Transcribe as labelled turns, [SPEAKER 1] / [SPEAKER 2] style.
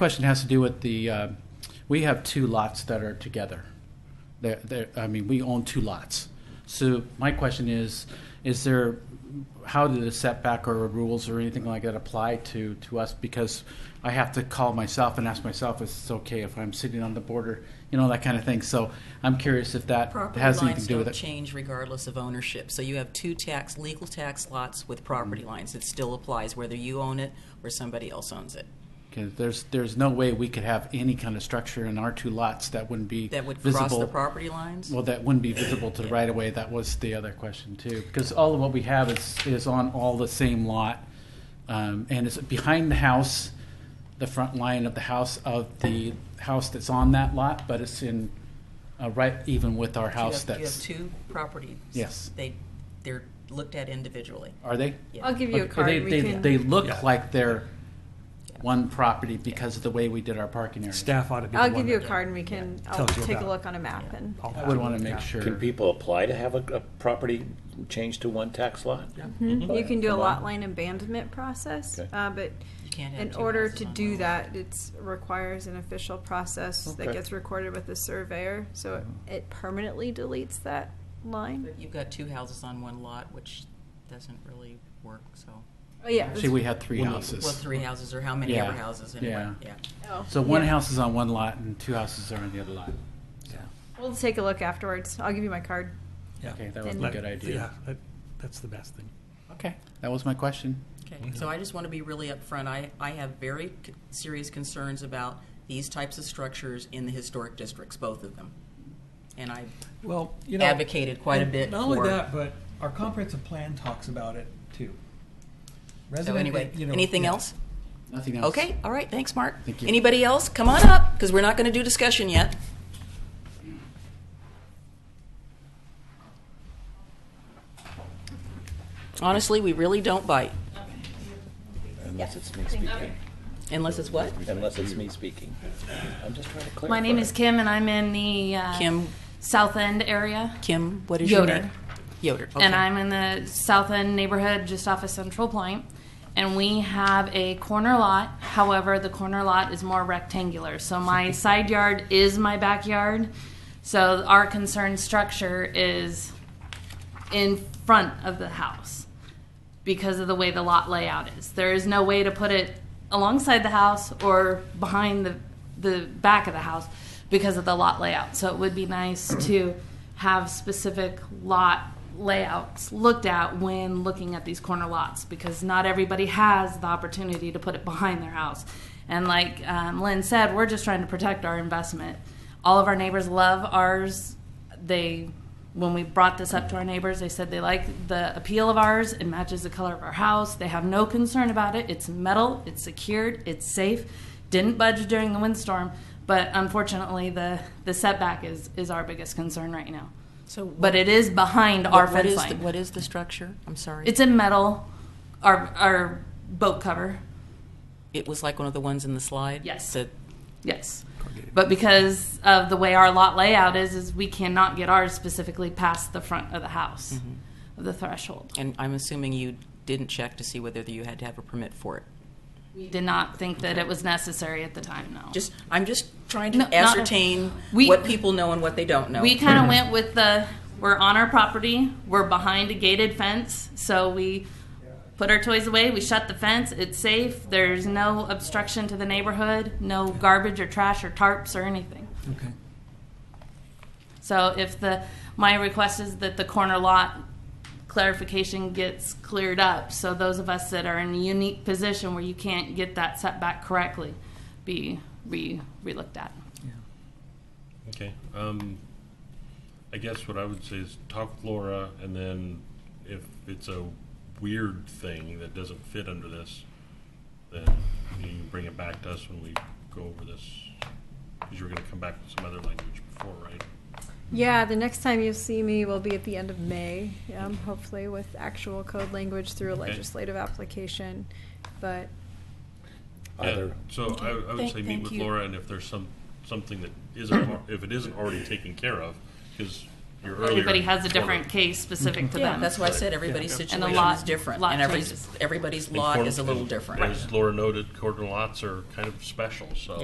[SPEAKER 1] Question has to do with the, uh, we have two lots that are together. There, there, I mean, we own two lots. So my question is, is there, how do the setback or rules or anything like that apply to, to us? Because I have to call myself and ask myself, is it okay if I'm sitting on the border, you know, that kind of thing. So I'm curious if that
[SPEAKER 2] Property
[SPEAKER 1] has anything
[SPEAKER 2] lines
[SPEAKER 1] to do with
[SPEAKER 2] don't
[SPEAKER 1] it.
[SPEAKER 2] change regardless of ownership. So you have two tax, legal tax lots with property
[SPEAKER 1] Mm-hmm.
[SPEAKER 2] lines. It still applies whether you own it or somebody else owns it.
[SPEAKER 1] Because there's, there's no way we could have any kind of structure in our two lots that wouldn't be
[SPEAKER 2] That would
[SPEAKER 1] visible.
[SPEAKER 2] cross the property lines?
[SPEAKER 1] Well, that wouldn't be visible to the right of way. That was the other question too, because all of what we have is, is on all the same lot. Um, and it's behind the house, the front line of the house of the house that's on that lot, but it's in, uh, right even with our
[SPEAKER 2] You
[SPEAKER 1] house
[SPEAKER 2] have- You have
[SPEAKER 1] that's,
[SPEAKER 2] two properties.
[SPEAKER 1] Yes.
[SPEAKER 2] They, they're looked at individually.
[SPEAKER 1] are they?
[SPEAKER 2] Yeah.
[SPEAKER 3] I'll give you a
[SPEAKER 1] Okay, they-
[SPEAKER 3] card. We
[SPEAKER 1] They,
[SPEAKER 3] can-
[SPEAKER 1] they look like they're one property because of the way we did our parking area.
[SPEAKER 4] Staff ought to be the
[SPEAKER 3] I'll
[SPEAKER 4] one
[SPEAKER 3] give you a
[SPEAKER 4] that
[SPEAKER 3] card and we can, I'll
[SPEAKER 4] Tells you
[SPEAKER 3] take a
[SPEAKER 4] about
[SPEAKER 3] look on a map and.
[SPEAKER 4] all
[SPEAKER 1] I would
[SPEAKER 4] that.
[SPEAKER 1] want to
[SPEAKER 4] Yeah.
[SPEAKER 1] make sure.
[SPEAKER 5] Can people apply to have a, a property changed to one tax lot?
[SPEAKER 1] Mm-hmm.
[SPEAKER 3] You can do a
[SPEAKER 5] Come
[SPEAKER 3] lot
[SPEAKER 5] on.
[SPEAKER 3] line abandonment process,
[SPEAKER 5] Okay.
[SPEAKER 3] uh, but
[SPEAKER 2] You can't have
[SPEAKER 3] in
[SPEAKER 2] two
[SPEAKER 3] order
[SPEAKER 2] houses
[SPEAKER 3] to
[SPEAKER 2] on
[SPEAKER 3] do
[SPEAKER 2] one lot.
[SPEAKER 3] that, it's requires an official process that
[SPEAKER 5] Okay.
[SPEAKER 3] gets recorded with the surveyor, so
[SPEAKER 1] Uh-huh.
[SPEAKER 3] it, it permanently deletes that line.
[SPEAKER 2] But You've got two houses on one lot, which doesn't really work, so.
[SPEAKER 3] Oh, yeah.
[SPEAKER 1] Actually, we had three
[SPEAKER 4] Well,
[SPEAKER 1] houses.
[SPEAKER 2] Well, three houses or how many ever
[SPEAKER 1] Yeah.
[SPEAKER 2] houses anyway,
[SPEAKER 1] Yeah.
[SPEAKER 2] yeah.
[SPEAKER 3] Oh,
[SPEAKER 1] So one
[SPEAKER 3] yeah.
[SPEAKER 1] house is on one lot and two houses are on the other lot.
[SPEAKER 3] We'll take a look afterwards. I'll give you my card.
[SPEAKER 4] Yeah.
[SPEAKER 1] Okay, that would be a
[SPEAKER 3] Let-
[SPEAKER 1] good idea.
[SPEAKER 4] Yeah, that, that's the best thing.
[SPEAKER 1] Okay, that was my question.
[SPEAKER 2] Okay, so I just want to be really upfront. I, I have very c- serious concerns about these types of structures in the historic districts, both of them. And I
[SPEAKER 4] Well, you know.
[SPEAKER 2] advocated quite a
[SPEAKER 4] and
[SPEAKER 2] bit
[SPEAKER 4] Not only
[SPEAKER 2] for-
[SPEAKER 4] that, but our comprehensive plan talks about it too.
[SPEAKER 2] So
[SPEAKER 4] Resident-
[SPEAKER 2] anyway,
[SPEAKER 4] you know,
[SPEAKER 2] anything
[SPEAKER 4] yeah.
[SPEAKER 2] else?
[SPEAKER 1] Nothing else.
[SPEAKER 2] Okay, all right, thanks, Mark.
[SPEAKER 1] Thank you.
[SPEAKER 2] Anybody else? Come on up, because we're not going to do discussion yet. Honestly, we really don't bite,
[SPEAKER 5] Unless it's me speaking.
[SPEAKER 2] unless it's what?
[SPEAKER 5] Unless it's me speaking. I'm just trying to clarify.
[SPEAKER 6] My name is Kim, and I'm in the uh,
[SPEAKER 2] Kim,
[SPEAKER 6] South End area,
[SPEAKER 2] Kim, what is your
[SPEAKER 6] Yoder.
[SPEAKER 2] name? Yoder. okay.
[SPEAKER 6] and I'm in the South End neighborhood just off of Central Point. And we have a corner lot. However, the corner lot is more rectangular, so my side yard is my backyard. So our concerned structure is in front of the house because of the way the lot layout is. There is no way to put it alongside the house or behind the the back of the house because of the lot layout. So it would be nice to have specific lot layouts looked at when looking at these corner lots because not everybody has the opportunity to put it behind their house. And like um, Lynn said, we're just trying to protect our investment. All of our neighbors love ours. They when we brought this up to our neighbors, they said they like the appeal of ours. It matches the color of our house. They have no concern about it. It's metal, it's secured, it's safe. Didn't budge during the windstorm, but unfortunately, the, the setback is, is our biggest concern right now.
[SPEAKER 2] So
[SPEAKER 6] But it is behind our
[SPEAKER 2] what
[SPEAKER 6] fence
[SPEAKER 2] is the,
[SPEAKER 6] line.
[SPEAKER 2] what is the structure? I'm sorry.
[SPEAKER 6] it's in metal, our, our boat cover.
[SPEAKER 2] it was like one of the ones in the slide.
[SPEAKER 6] Yes.
[SPEAKER 2] That
[SPEAKER 6] Yes. But because of the way our lot layout is, is we cannot get ours specifically past the front of the house,
[SPEAKER 2] Mm-hmm.
[SPEAKER 6] of the threshold.
[SPEAKER 2] And I'm assuming you didn't check to see whether you had to have a permit for it.
[SPEAKER 6] We did not think that it was necessary at the time, no.
[SPEAKER 2] Just, I'm just trying to
[SPEAKER 6] No, not-
[SPEAKER 2] ascertain
[SPEAKER 6] We-
[SPEAKER 2] what people know and what they don't know.
[SPEAKER 6] we kind of went with the we're on our property, we're behind a gated fence, so we put our toys away, we shut the fence, it's safe, there's no obstruction to the neighborhood, no garbage or trash or tarps or anything.
[SPEAKER 4] Okay.
[SPEAKER 6] So if the, my request is that the corner lot clarification gets cleared up, so those of us that are in a unique position where you can't get that setback correctly be re, re-looked at.
[SPEAKER 7] Okay, um, I guess what I would say is talk with Laura, and then if it's a weird thing that doesn't fit under this, then you can bring it back to us when we go over this, because you were gonna come back with some other language before, right?
[SPEAKER 3] Yeah, the next time you see me will be at the end of May, um, hopefully with actual code language through a
[SPEAKER 7] Okay.
[SPEAKER 3] legislative application. But
[SPEAKER 7] Yeah,
[SPEAKER 5] Either,
[SPEAKER 7] So I, I would
[SPEAKER 2] Thank-
[SPEAKER 7] say
[SPEAKER 2] thank
[SPEAKER 7] meet with
[SPEAKER 2] you.
[SPEAKER 7] Laura, and if there's some, something that isn't, al- if it isn't already taken care of, because your earlier.
[SPEAKER 6] Everybody has a different
[SPEAKER 7] corner.
[SPEAKER 6] case specific to
[SPEAKER 2] Yeah,
[SPEAKER 6] them.
[SPEAKER 2] that's why I said everybody's
[SPEAKER 7] Yeah.
[SPEAKER 6] And the
[SPEAKER 2] situation
[SPEAKER 6] lot-
[SPEAKER 2] is different.
[SPEAKER 6] lot
[SPEAKER 2] And every-
[SPEAKER 6] changes.
[SPEAKER 2] everybody's
[SPEAKER 7] And
[SPEAKER 2] lot
[SPEAKER 7] corn-
[SPEAKER 2] is a little
[SPEAKER 7] and
[SPEAKER 2] different.
[SPEAKER 7] As Laura noted, corner lots are kind of special, so.